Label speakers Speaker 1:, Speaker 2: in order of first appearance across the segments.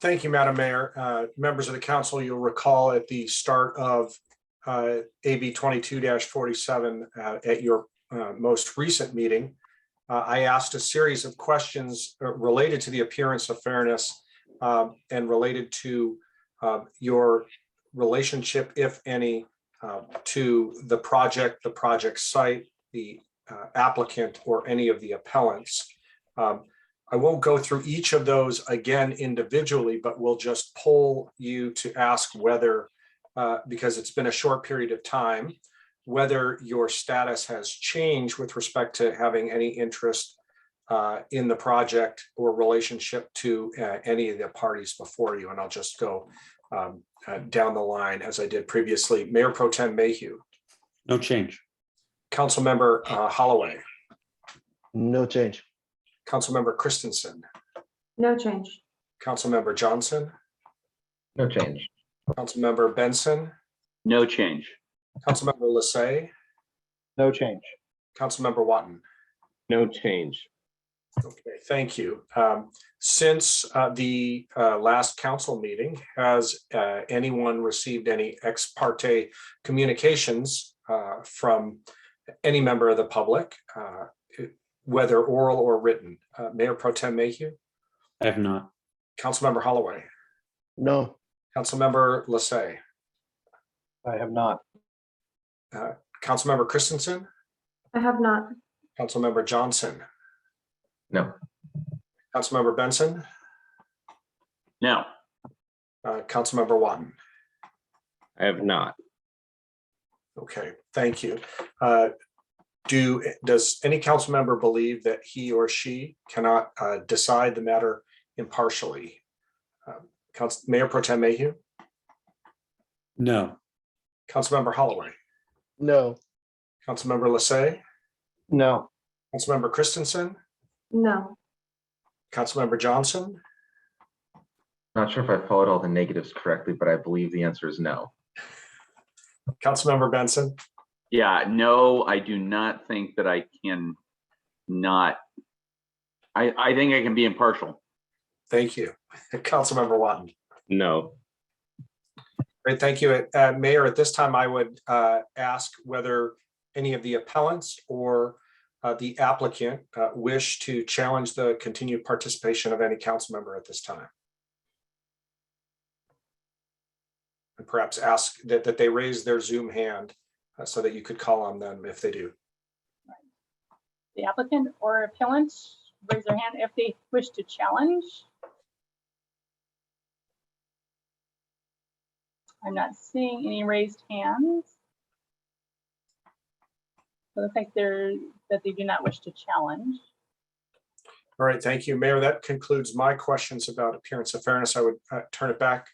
Speaker 1: Thank you, Madam Mayor. Uh, Members of the council, you'll recall at the start of uh, AB twenty-two forty-seven at your uh, most recent meeting, uh, I asked a series of questions uh, related to the appearance of fairness um, and related to uh, your relationship, if any, uh, to the project, the project site, the uh, applicant, or any of the appellants. Um, I won't go through each of those again individually, but we'll just poll you to ask whether, uh, because it's been a short period of time, whether your status has changed with respect to having any interest uh, in the project or relationship to uh, any of the parties before you. And I'll just go um, uh, down the line as I did previously. Mayor Pro Tem Mayhew,
Speaker 2: No change.
Speaker 1: Councilmember uh, Holloway,
Speaker 3: No change.
Speaker 1: Councilmember Christensen,
Speaker 4: No change.
Speaker 1: Councilmember Johnson,
Speaker 3: No change.
Speaker 1: Councilmember Benson,
Speaker 5: No change.
Speaker 1: Councilmember Lissay,
Speaker 3: No change.
Speaker 1: Councilmember Watton.
Speaker 3: No change.
Speaker 1: Okay, thank you. Um, Since uh, the uh, last council meeting, has uh, anyone received any ex parte communications uh, from any member of the public, uh, whether oral or written? Uh, Mayor Pro Tem Mayhew,
Speaker 2: I have not.
Speaker 1: Councilmember Holloway,
Speaker 3: No.
Speaker 1: Councilmember Lissay,
Speaker 3: I have not.
Speaker 1: Councilmember Christensen,
Speaker 4: I have not.
Speaker 1: Councilmember Johnson.
Speaker 3: No.
Speaker 1: Councilmember Benson,
Speaker 5: No.
Speaker 1: uh, Councilmember Watton.
Speaker 3: I have not.
Speaker 1: Okay, thank you. Uh, Do, does any council member believe that he or she cannot uh, decide the matter impartially? Um, Council, Mayor Pro Tem Mayhew,
Speaker 2: No.
Speaker 1: Councilmember Holloway,
Speaker 3: No.
Speaker 1: Councilmember Lissay,
Speaker 3: No.
Speaker 1: Councilmember Christensen,
Speaker 4: No.
Speaker 1: Councilmember Johnson.
Speaker 6: Not sure if I followed all the negatives correctly, but I believe the answer is no.
Speaker 1: Councilmember Benson,
Speaker 5: Yeah, no, I do not think that I can not. I, I think I can be impartial.
Speaker 1: thank you. Councilmember Watton.
Speaker 3: No.
Speaker 1: Great, thank you. Uh, Mayor, at this time, I would uh, ask whether any of the appellants or uh, the applicant uh, wish to challenge the continued participation of any council member at this time. And perhaps ask that, that they raise their Zoom hand uh, so that you could call on them if they do.
Speaker 7: the applicant or appellant raise their hand if they wish to challenge. I'm not seeing any raised hands. So It looks like they're, that they do not wish to challenge.
Speaker 1: All right, thank you, Mayor. That concludes my questions about appearance of fairness. I would uh, turn it back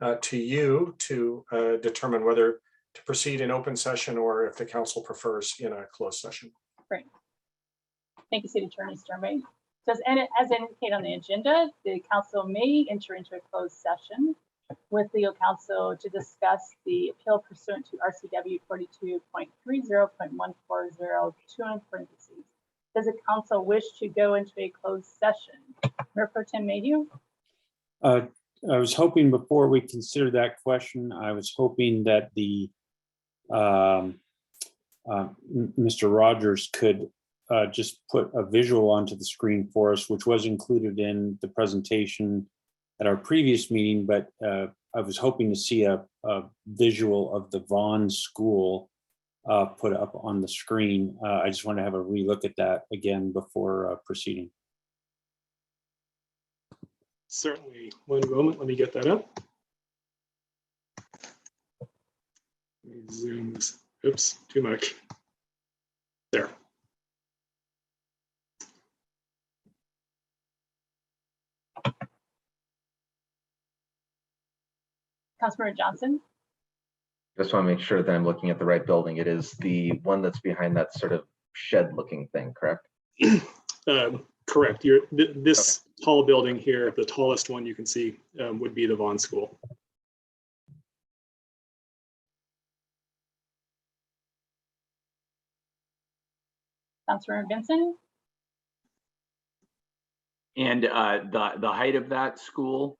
Speaker 1: uh, to you to uh, determine whether to proceed in open session or if the council prefers in a closed session.
Speaker 7: Thank you, City Attorney Sternway. Says, and as indicated on the agenda, the council may enter into a closed session with legal counsel to discuss the appeal pursuant to RCW forty-two point three zero point one four zero two in parentheses. Does the council wish to go into a closed session? Mayor Pro Tem Mayhew?
Speaker 2: Uh, I was hoping before we consider that question, I was hoping that the um, uh, M- Mr. Rogers could uh, just put a visual onto the screen for us, which was included in the presentation at our previous meeting, but uh, I was hoping to see a a visual of the Vaughn School uh, put up on the screen. Uh, I just want to have a relook at that again before uh, proceeding.
Speaker 8: Certainly. One moment, let me get that up. Let me Zoom this, oops, too much. There.
Speaker 7: Councilmember Johnson?
Speaker 6: Just want to make sure that I'm looking at the right building. It is the one that's behind that sort of shed looking thing, correct?
Speaker 8: Um, Correct, you're, th- this tall building here, the tallest one you can see um, would be the Vaughn School.
Speaker 7: Councilmember Benson?
Speaker 5: And uh, the, the height of that school